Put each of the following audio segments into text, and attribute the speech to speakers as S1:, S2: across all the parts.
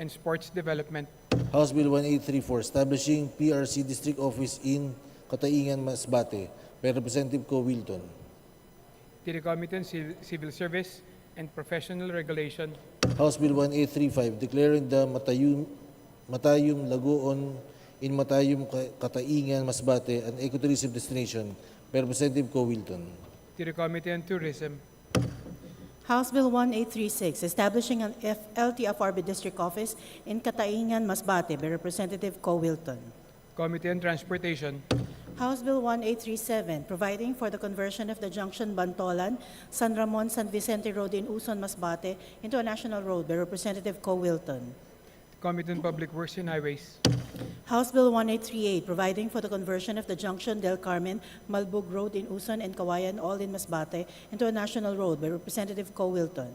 S1: and Sports Development,
S2: House Bill 1834, establishing PRC District Office in Kataingan, Masbate by Representative Co. Wilton.
S1: to the Committee on Civ- Civil Service and Professional Regulation,
S2: House Bill 1835, declaring the Matayum, Matayum Lagoon in Matayum, Ka- Kataingan, Masbate an ecotourism destination by Representative Co. Wilton.
S1: to the Committee on Tourism,
S3: House Bill 1836, establishing an F- LTFRB district office in Kataingan, Masbate by Representative Co. Wilton.
S1: Committee on Transportation,
S3: House Bill 1837, providing for the conversion of the junction Bantolan, San Ramon, San Vicente Road in Uson, Masbate into a national road by Representative Co. Wilton.
S1: Committee on Public Works and Highways,
S3: House Bill 1838, providing for the conversion of the junction Del Carmen, Malbug Road in Uson and Kawayan, all in Masbate, into a national road by Representative Co. Wilton.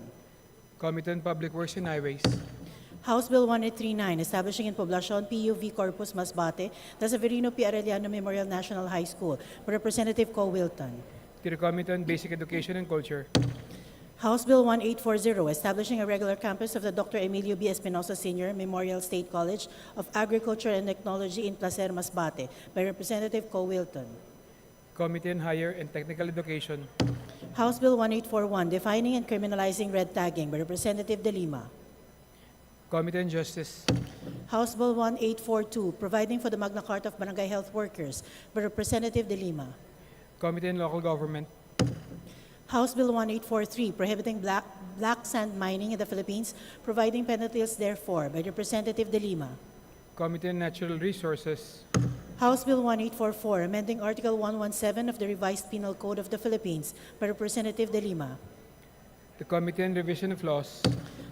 S1: Committee on Public Works and Highways,
S3: House Bill 1839, establishing in Poblacion PUV Corpus Masbate, the Severino P. Arellano Memorial National High School, by Representative Co. Wilton.
S1: to the Committee on Basic Education and Culture,
S3: House Bill 1840, establishing a regular campus of the Dr. Emilio B. Espinosa Sr. Memorial State College of Agriculture and Technology in Placer, Masbate, by Representative Co. Wilton.
S1: Committee on Higher and Technical Education,
S3: House Bill 1841, defining and criminalizing red tagging, by Representative De Lima.
S1: Committee on Justice,
S3: House Bill 1842, providing for the Magna Carta of Barangay Health Workers, by Representative De Lima.
S1: Committee on Local Government,
S3: House Bill 1843, prohibiting black, black sand mining in the Philippines, providing penalties therefore, by Representative De Lima.
S1: Committee on Natural Resources,
S3: House Bill 1844, amending Article 117 of the Revised Penal Code of the Philippines, by Representative De Lima.
S1: the Committee on Revision of Laws,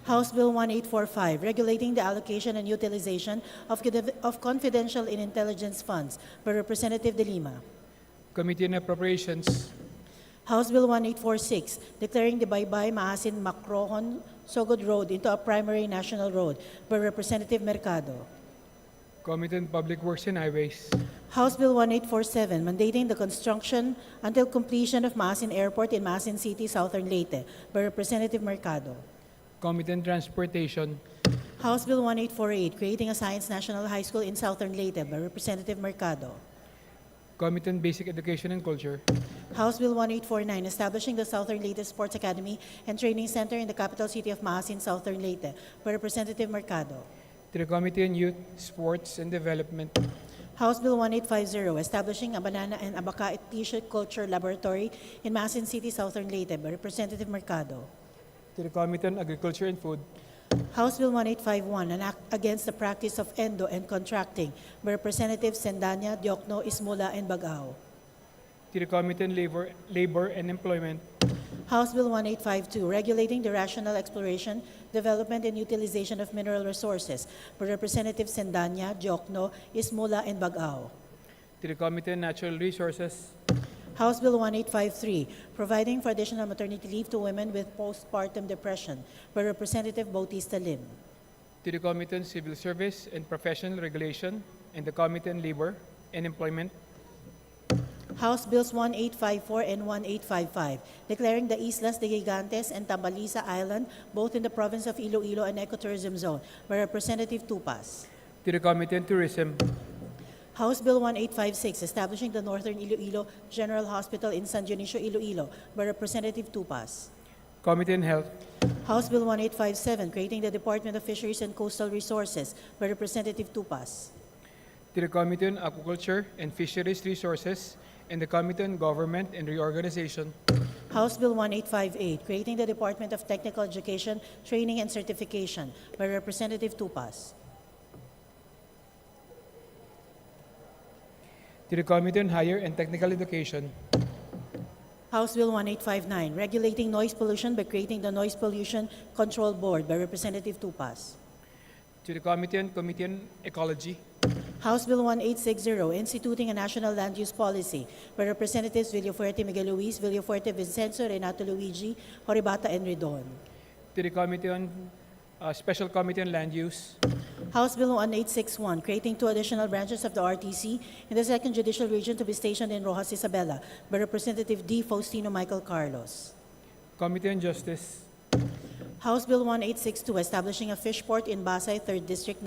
S3: House Bill 1845, regulating the allocation and utilization of, confi- of confidential and intelligence funds, by Representative De Lima.
S1: Committee on Appropriations,
S3: House Bill 1846, declaring the Baybay Maasin Macrohon Sogod Road into a primary national road, by Representative Mercado.
S1: Committee on Public Works and Highways,
S3: House Bill 1847, mandating the construction until completion of Maasin Airport in Maasin City, Southern Leyte, by Representative Mercado.
S1: Committee on Transportation,
S3: House Bill 1848, creating a Science National High School in Southern Leyte, by Representative Mercado.
S1: Committee on Basic Education and Culture,
S3: House Bill 1849, establishing the Southern Leyte Sports Academy and Training Center in the capital city of Maasin, Southern Leyte, by Representative Mercado.
S1: to the Committee on Youth, Sports and Development,
S3: House Bill 1850, establishing a banana and abaca t-shirt culture laboratory in Maasin City, Southern Leyte, by Representative Mercado.
S1: to the Committee on Agriculture and Food,
S3: House Bill 1851, an act against the practice of endo and contracting by Representatives Sendanya, Diokno, Ismola, and Bagao.
S1: to the Committee on Labor, Labor and Employment,
S3: House Bill 1852, regulating the rational exploration, development, and utilization of mineral resources by Representatives Sendanya, Diokno, Ismola, and Bagao.
S1: to the Committee on Natural Resources,
S3: House Bill 1853, providing for additional maternity leave to women with postpartum depression by Representative Bautista Lim.
S1: to the Committee on Civil Service and Professional Regulation, and the Committee on Labor and Employment,
S3: House Bills 1854 and 1855, declaring the Islas de Gigantes and Tambalisa Island both in the province of Iloilo an ecotourism zone by Representative Tupas.
S1: to the Committee on Tourism,
S3: House Bill 1856, establishing the Northern Iloilo General Hospital in San Dionisio, Iloilo by Representative Tupas.
S1: Committee on Health,
S3: House Bill 1857, creating the Department of Fisheries and Coastal Resources by Representative Tupas.
S1: to the Committee on Aquaculture and Fisheries Resources, and the Committee on Government and Reorganization,
S3: House Bill 1858, creating the Department of Technical Education, Training and Certification by Representative Tupas.
S1: to the Committee on Higher and Technical Education,
S3: House Bill 1859, regulating noise pollution by creating the Noise Pollution Control Board by Representative Tupas.
S1: to the Committee on Committee on Ecology,
S3: House Bill 1860, instituting a national land use policy by Representatives Villafuerte Miguel Luis, Villafuerte Vincenzo, Renato Luigi, Horibata, and Redon.
S1: to the Committee on, uh, Special Committee on Land Use,
S3: House Bill 1861, creating two additional branches of the RTC in the Second Judicial Region to be stationed in Rojas Isabela by Representative D. Faustino Michael Carlos.
S1: Committee on Justice,
S3: House Bill 1862, establishing a fish port in Pasay, 3rd District,